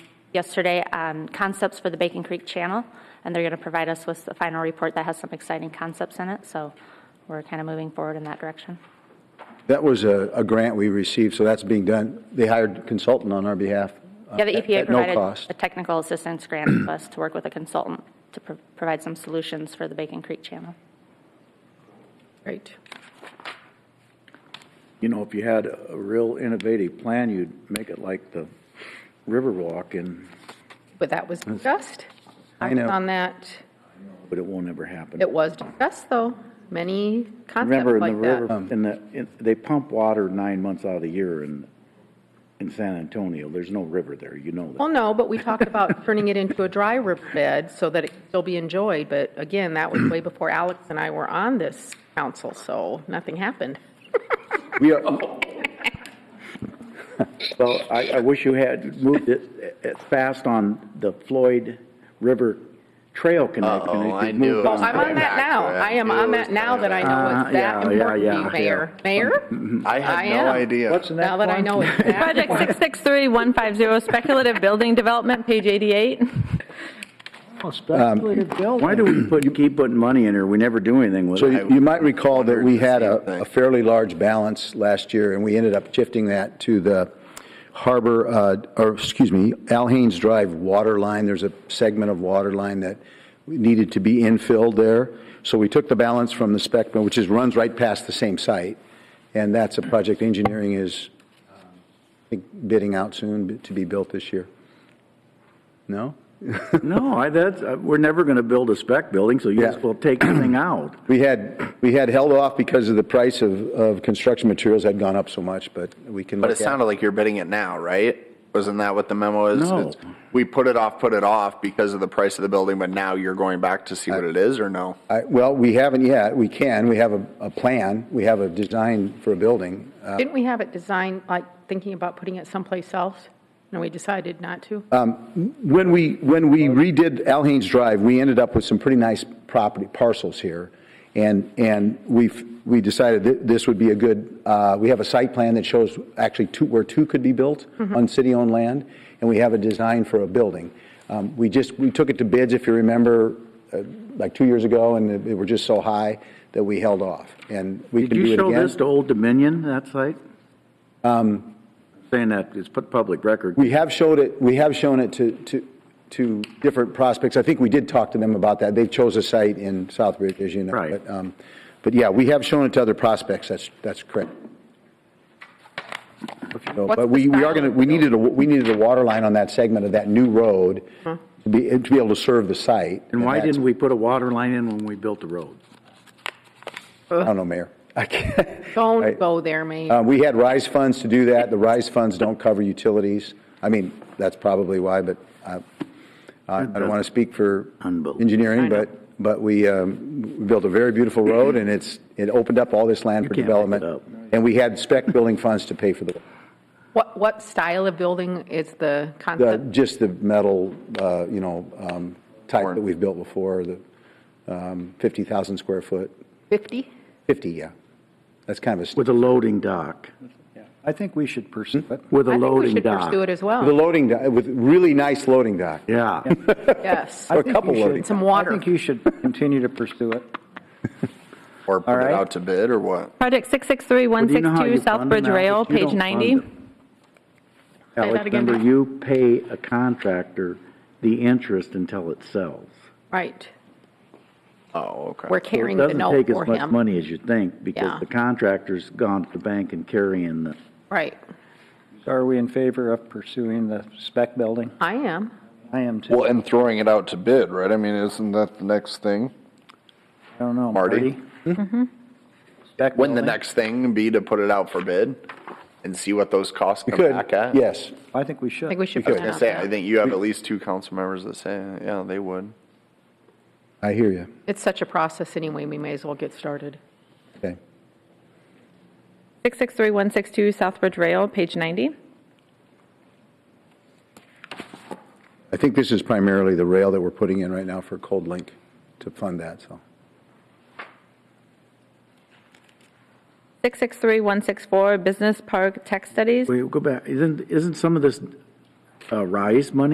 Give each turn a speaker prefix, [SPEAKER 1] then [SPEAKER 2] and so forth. [SPEAKER 1] yesterday on concepts for the Bacon Creek Channel, and they're going to provide us with the final report that has some exciting concepts in it, so we're kind of moving forward in that direction.
[SPEAKER 2] That was a, a grant we received, so that's being done. They hired a consultant on our behalf. uh,
[SPEAKER 1] Yeah, the
[SPEAKER 2] at-
[SPEAKER 1] EPA
[SPEAKER 2] At no
[SPEAKER 1] provided
[SPEAKER 2] cost.
[SPEAKER 1] a technical assistance grant to us to work with a consultant to pro- provide some solutions for the Bacon Creek Channel.
[SPEAKER 3] Great.
[SPEAKER 4] You know, if you had a real innovative plan, you'd make it like the Riverwalk and,
[SPEAKER 3] But that was
[SPEAKER 4] Mm.
[SPEAKER 3] discussed.
[SPEAKER 2] I
[SPEAKER 3] was
[SPEAKER 2] know.
[SPEAKER 3] On that,
[SPEAKER 4] but it won't ever happen.
[SPEAKER 3] it was discussed, though, many concepts
[SPEAKER 4] Remember in the
[SPEAKER 3] like
[SPEAKER 4] river,
[SPEAKER 3] that.
[SPEAKER 4] in the, in- they pump water nine months out of the year in, in San Antonio. There's no river there, you know
[SPEAKER 3] Well,
[SPEAKER 4] that.
[SPEAKER 3] no, but we talked about turning it into a dry riverbed so that it could still be enjoyed, but again, that was way before Alex and I were on this council, so nothing happened.
[SPEAKER 2] We
[SPEAKER 1] Oh,
[SPEAKER 2] are,
[SPEAKER 4] Well, I, I wish you had moved it uh, fast on the Floyd River Trail connection.
[SPEAKER 5] Uh-oh,
[SPEAKER 4] If you'd
[SPEAKER 5] I knew
[SPEAKER 4] moved
[SPEAKER 5] it
[SPEAKER 3] Oh,
[SPEAKER 4] on
[SPEAKER 5] was
[SPEAKER 3] I'm on
[SPEAKER 4] that.
[SPEAKER 5] going
[SPEAKER 3] that
[SPEAKER 5] back
[SPEAKER 3] now.
[SPEAKER 5] to that.
[SPEAKER 3] I am
[SPEAKER 5] It
[SPEAKER 3] on
[SPEAKER 5] was
[SPEAKER 3] that now
[SPEAKER 5] going
[SPEAKER 3] that I know
[SPEAKER 4] back.
[SPEAKER 3] it's that
[SPEAKER 4] Uh, yeah,
[SPEAKER 3] important
[SPEAKER 4] yeah,
[SPEAKER 3] to you,
[SPEAKER 4] yeah. Mm-hmm.
[SPEAKER 3] Mayor. Mayor?
[SPEAKER 5] I had
[SPEAKER 3] I
[SPEAKER 5] no
[SPEAKER 3] am.
[SPEAKER 5] idea.
[SPEAKER 4] What's the next
[SPEAKER 3] Now that I
[SPEAKER 4] one?
[SPEAKER 3] know it's that.
[SPEAKER 6] Project 663-150, speculative building development, page 88.
[SPEAKER 4] Why do we put, keep putting money in here? We never do anything with
[SPEAKER 2] so
[SPEAKER 4] it.
[SPEAKER 2] you you might recall that we had
[SPEAKER 5] Wondered the same
[SPEAKER 2] a
[SPEAKER 5] thing.
[SPEAKER 2] a fairly large balance last year, and we ended up shifting that to the harbor, uh, or, excuse me, Al Haynes Drive water line. There's a segment of water line that needed to be infilled there. So we took the balance from the spec, which is, runs right past the same site, and that's a project engineering is um, I think, bidding out soon to be built this year. No?
[SPEAKER 4] No, I, that's, uh, we're never gonna build a spec building, so you
[SPEAKER 2] Yeah.
[SPEAKER 4] just will take the thing out.
[SPEAKER 2] We had, we had held off because of the price of, of construction materials had gone up so much, but we can
[SPEAKER 5] But
[SPEAKER 2] look
[SPEAKER 5] it
[SPEAKER 2] at-
[SPEAKER 5] sounded like you're bidding it now, right? Wasn't that what the memo is?
[SPEAKER 4] No.
[SPEAKER 5] It's- We put it off, put it off because of the price of the building, but now you're going back to see what it is or no?
[SPEAKER 2] I- Well, we haven't yet. We can. We have a, a plan. We have a design for a building. Uh,
[SPEAKER 3] Didn't we have it designed, like, thinking about putting it someplace else? And we decided not to?
[SPEAKER 2] When we, when we redid Al Haynes Drive, we ended up with some pretty nice property parcels here. And, and we've, we decided that this would be a good, uh, we have a site plan that shows actually two, where two could be built on city-owned land, and we have a design for a building. Um, We just, we took it to bids, if you remember, uh, like two years ago, and they were just so high that we held off. And we
[SPEAKER 4] Did
[SPEAKER 2] can do it
[SPEAKER 4] you
[SPEAKER 2] again.
[SPEAKER 4] show this to Old Dominion, that site? Um, Saying that, it's put public record.
[SPEAKER 2] We have showed it, we have shown it to, to, to different prospects. I think we did talk to them about that. They chose a site in Southbridge, as you know.
[SPEAKER 4] Right.
[SPEAKER 2] But, um, But yeah, we have shown it to other prospects. That's, that's correct. So,
[SPEAKER 3] What's
[SPEAKER 2] But
[SPEAKER 3] the
[SPEAKER 2] we, we
[SPEAKER 3] style
[SPEAKER 2] are
[SPEAKER 3] of
[SPEAKER 2] going to,
[SPEAKER 3] the
[SPEAKER 2] we needed a, we needed a water line on that segment of that new road to be, to be able to serve the site.
[SPEAKER 4] And why
[SPEAKER 2] that's-
[SPEAKER 4] didn't we put a water line in when we built the road?
[SPEAKER 2] I
[SPEAKER 4] Uh,
[SPEAKER 2] don't know, Mayor. I can't. I-
[SPEAKER 3] Don't go there, Mayor.
[SPEAKER 2] Uh, We had RISE funds to do that. The RISE funds don't cover utilities. I mean, that's probably why, but I I- I don't want to speak for
[SPEAKER 4] Unbelievable.
[SPEAKER 2] engineering, but, but we um, we built a very beautiful road, and it's, it opened up all this land for
[SPEAKER 4] can't make it
[SPEAKER 2] development.
[SPEAKER 4] up.
[SPEAKER 2] And we had spec building funds to pay for the,
[SPEAKER 3] What, what style of building is the
[SPEAKER 2] the-
[SPEAKER 3] concept?
[SPEAKER 2] just the metal, uh, you know, um, type
[SPEAKER 5] Corn.
[SPEAKER 2] that we've built before, the um, 50,000 square foot,
[SPEAKER 3] 50?
[SPEAKER 2] 50, yeah. That's kind of a, st-
[SPEAKER 4] With a loading dock,
[SPEAKER 7] I think we should pursue it.
[SPEAKER 4] with a
[SPEAKER 3] I think we
[SPEAKER 4] loading
[SPEAKER 3] should
[SPEAKER 4] dock.
[SPEAKER 3] pursue it as
[SPEAKER 2] the
[SPEAKER 3] well,
[SPEAKER 2] loading, dock- with really nice loading dock.
[SPEAKER 4] Yeah,
[SPEAKER 3] yes.
[SPEAKER 2] A couple loading.
[SPEAKER 3] Some water.
[SPEAKER 7] I think you should continue to pursue it.
[SPEAKER 5] Or put it
[SPEAKER 7] right.
[SPEAKER 5] out to bid or what?
[SPEAKER 6] Project
[SPEAKER 4] Well, do you know how you
[SPEAKER 6] 663-162,
[SPEAKER 4] fund them,
[SPEAKER 6] Southbridge
[SPEAKER 4] Alex?
[SPEAKER 6] Rail,
[SPEAKER 4] You don't
[SPEAKER 6] page
[SPEAKER 4] fund
[SPEAKER 6] 90.
[SPEAKER 4] them. Alex,
[SPEAKER 6] that again.
[SPEAKER 4] remember, you pay a contractor the interest until it sells.
[SPEAKER 3] Right.
[SPEAKER 5] Oh, okay.
[SPEAKER 3] We're
[SPEAKER 4] So
[SPEAKER 3] carrying the note
[SPEAKER 4] It
[SPEAKER 3] for
[SPEAKER 4] doesn't take as much
[SPEAKER 3] him.
[SPEAKER 4] money as you think,
[SPEAKER 3] Yeah.
[SPEAKER 4] because the contractor's gone to the bank and carrying the,
[SPEAKER 3] Right.
[SPEAKER 7] So Are we in favor of pursuing the spec building?
[SPEAKER 3] I am.
[SPEAKER 7] I am too.
[SPEAKER 5] Well, and throwing it out to bid, right? I mean, isn't that the next thing?
[SPEAKER 7] I don't know,
[SPEAKER 5] Marty?
[SPEAKER 7] Marty. Spec
[SPEAKER 5] Wouldn't the
[SPEAKER 7] building?
[SPEAKER 5] next thing be to put it out for bid and see what those costs come
[SPEAKER 2] Could,
[SPEAKER 5] back at?
[SPEAKER 2] yes.
[SPEAKER 7] I think we should.
[SPEAKER 3] I think we should.
[SPEAKER 5] I
[SPEAKER 3] plan
[SPEAKER 5] was gonna
[SPEAKER 3] on
[SPEAKER 5] say,
[SPEAKER 3] that.
[SPEAKER 5] I think you have at least two council members that say, yeah, they would.
[SPEAKER 2] I hear you.
[SPEAKER 3] It's such a process anyway, we may as well get started.
[SPEAKER 2] Okay.
[SPEAKER 6] 663-162, Southbridge Rail, page 90.
[SPEAKER 2] I think this is primarily the rail that we're putting in right now for Cold Link to fund that, so.
[SPEAKER 6] 663-164, business park tech studies.
[SPEAKER 4] wait, go back, isn't, isn't some of this uh, RISE money